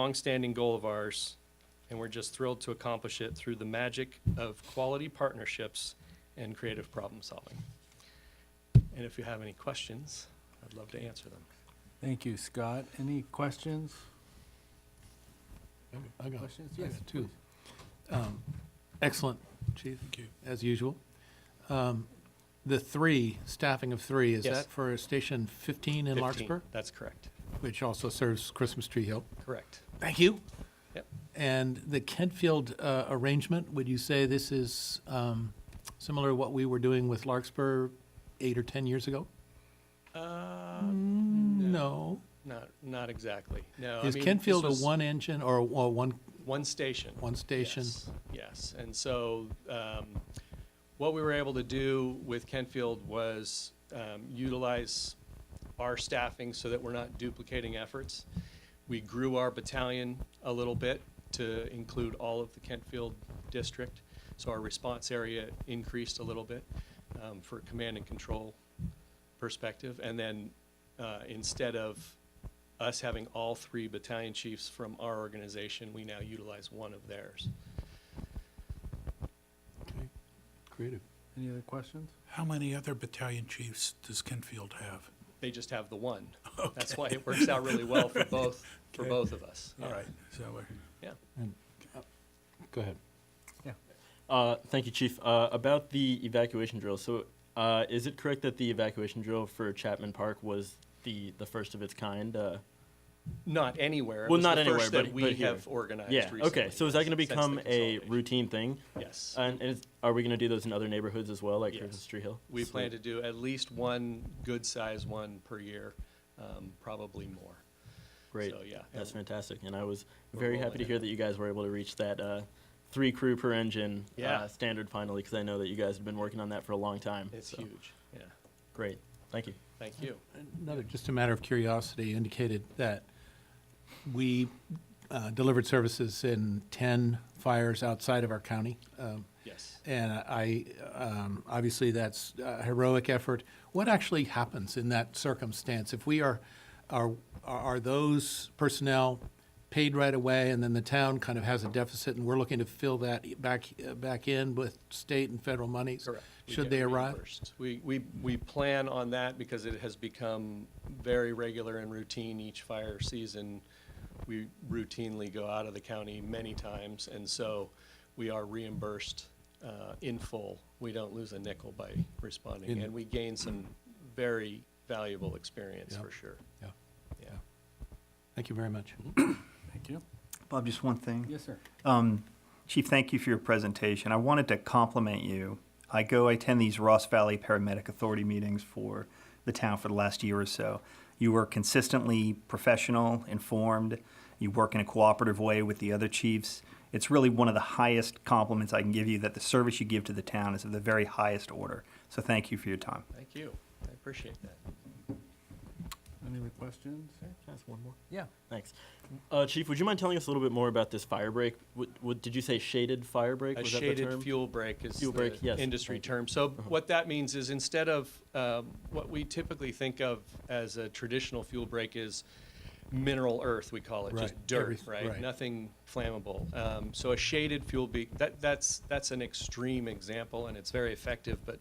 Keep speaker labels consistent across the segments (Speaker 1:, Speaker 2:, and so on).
Speaker 1: longstanding goal of ours, and we're just thrilled to accomplish it through the magic of quality partnerships and creative problem solving. And if you have any questions, I'd love to answer them.
Speaker 2: Thank you, Scott. Any questions?
Speaker 3: I got,
Speaker 2: Questions?
Speaker 3: I got two. Um, Excellent, Chief. Thank you. As usual. Um, The three, staffing of three, is
Speaker 1: Yes.
Speaker 3: that for Station 15 in
Speaker 1: 15.
Speaker 3: Larkspur?
Speaker 1: That's correct.
Speaker 3: Which also serves Christmas Tree Hill.
Speaker 1: Correct.
Speaker 3: Thank you.
Speaker 1: Yep.
Speaker 3: And the Kentfield uh, arrangement, would you say this is um, similar to what we were doing with Larkspur eight or 10 years ago? Mm,
Speaker 1: Uh,
Speaker 3: No.
Speaker 1: not, not exactly. No. I
Speaker 3: Is
Speaker 1: mean,
Speaker 3: Kentfield a
Speaker 1: this was
Speaker 3: one-engine or a or one,
Speaker 1: One station.
Speaker 3: one station?
Speaker 1: Yes, Yes, and so um, what we were able to do with Kentfield was um, utilize our staffing so that we're not duplicating efforts. We grew our battalion a little bit to include all of the Kentfield district, so our response area increased a little bit um, for command and control perspective. And then uh, instead of us having all three battalion chiefs from our organization, we now utilize one of theirs.
Speaker 3: Okay. Creative.
Speaker 2: Any other questions?
Speaker 4: How many other battalion chiefs does Kenfield have?
Speaker 1: They just have the one. That's why it works out really well for both, for
Speaker 4: Okay.
Speaker 1: both of us.
Speaker 4: All
Speaker 1: Yeah.
Speaker 4: right, so we're.
Speaker 1: Yeah.
Speaker 3: Go ahead.
Speaker 5: Uh, thank you, Chief. Uh, about the evacuation drill, so uh, is it correct that the evacuation drill for Chapman Park was the, the first of its kind? Uh,
Speaker 1: Not anywhere. It
Speaker 5: Well,
Speaker 1: was
Speaker 5: not
Speaker 1: the
Speaker 5: anywhere,
Speaker 1: first
Speaker 5: but-
Speaker 1: that
Speaker 5: but
Speaker 1: we
Speaker 5: here.
Speaker 1: have organized
Speaker 5: yeah.
Speaker 1: Uh, recently.
Speaker 5: Okay. So is that going to
Speaker 1: yes, since the
Speaker 5: become a Uh,
Speaker 1: consolidation.
Speaker 5: routine thing?
Speaker 1: Yes.
Speaker 5: And, and is, are we going to do those in other neighborhoods as well, like
Speaker 1: Yes.
Speaker 5: Christmas Tree Hill?
Speaker 1: We
Speaker 5: Sweet.
Speaker 1: plan to do at least one good-sized one per year, um, probably more.
Speaker 5: Great.
Speaker 1: So, yeah.
Speaker 5: That's
Speaker 1: and-
Speaker 5: fantastic, and I was
Speaker 1: We're
Speaker 5: very
Speaker 1: rolling
Speaker 5: happy to
Speaker 1: it
Speaker 5: hear
Speaker 1: out.
Speaker 5: that you guys were able to reach that uh, three crew per engine
Speaker 1: Yeah.
Speaker 5: uh, standard finally, because I know that you guys have been working on that for a long time.
Speaker 1: It's
Speaker 5: so,
Speaker 1: huge. Yeah.
Speaker 5: Great. Thank you.
Speaker 1: Thank you.
Speaker 3: Another, just a matter of curiosity, indicated that we uh, delivered services in 10 fires outside of our county. Um,
Speaker 1: Yes.
Speaker 3: And I, um, obviously, that's a heroic effort. What actually happens in that circumstance? If we are, are, are those personnel paid right away, and then the town kind of has a deficit, and we're looking to fill that back, back in with state and federal monies?
Speaker 1: Correct. We
Speaker 3: Should
Speaker 1: get
Speaker 3: they arrive?
Speaker 1: reimbursed. We, we, we plan on that because it has become very regular and routine each fire season. We routinely go out of the county many times, and so we are reimbursed uh, in full. We don't lose a nickel by responding,
Speaker 3: In-
Speaker 1: and we gain some very valuable experience
Speaker 3: Yeah.
Speaker 1: for sure.
Speaker 3: Yeah.
Speaker 1: Yeah.
Speaker 3: Thank you very much.
Speaker 1: Mm-hmm.
Speaker 2: Thank you.
Speaker 6: Bob, just one thing.
Speaker 2: Yes, sir.
Speaker 6: Um, Chief, thank you for your presentation. I wanted to compliment you. I go, I attend these Ross Valley Paramedic Authority meetings for the town for the last year or so. You were consistently professional, informed. You work in a cooperative way with the other chiefs. It's really one of the highest compliments I can give you that the service you give to the town is of the very highest order. So thank you for your time.
Speaker 1: Thank you. I appreciate that.
Speaker 2: Any other questions?
Speaker 5: Can I ask one more?
Speaker 2: Yeah.
Speaker 5: Thanks. Uh, Chief, would you mind telling us a little bit more about this fire break? What, what, did you say shaded fire break?
Speaker 1: A
Speaker 5: Was that the
Speaker 1: shaded
Speaker 5: term?
Speaker 1: fuel break is
Speaker 5: Fuel break,
Speaker 1: the
Speaker 5: yes, Uh-huh.
Speaker 1: industry
Speaker 5: thank you.
Speaker 1: term. So what that means is instead of um, what we typically think of as a traditional fuel break is mineral earth, we call it, just
Speaker 3: Right,
Speaker 1: dirt,
Speaker 3: everyth-
Speaker 1: right?
Speaker 3: right.
Speaker 1: Nothing flammable. Um, So a shaded fuel be, that, that's, that's an extreme example and it's very effective, but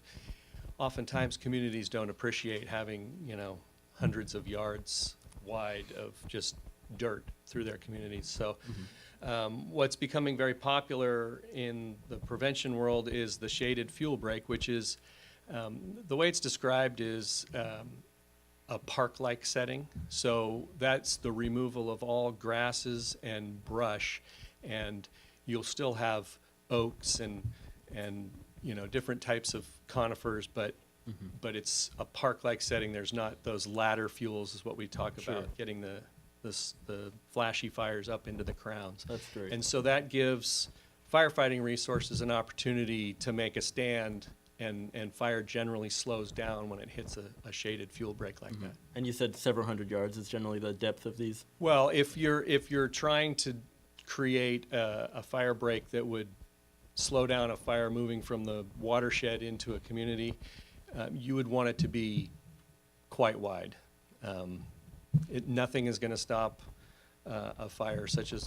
Speaker 1: oftentimes communities don't appreciate having, you know, hundreds of yards wide of just dirt through their communities. So
Speaker 5: Mm-hmm.
Speaker 1: um, what's becoming very popular in the prevention world is the shaded fuel break, which is um, the way it's described is um, a park like setting. So that's the removal of all grasses and brush, and you'll still have oaks and and you know different types of conifers, but
Speaker 5: Mm-hmm.
Speaker 1: but it's a park like setting. There's not those ladder fuels is what we talk
Speaker 5: Sure.
Speaker 1: about, getting the the, s- the flashy fires up into the crowns.
Speaker 5: That's great.
Speaker 1: And so that gives firefighting resources an opportunity to make a stand, and, and fire generally slows down when it hits a, a shaded fuel break like that.
Speaker 5: And you said several hundred yards is generally the depth of these.
Speaker 1: Well, if you're, if you're trying to create a, a fire break that would slow down a fire moving from the watershed into a community, um, you would want it to be quite wide. Um, it, nothing is going to stop uh, of fire, such as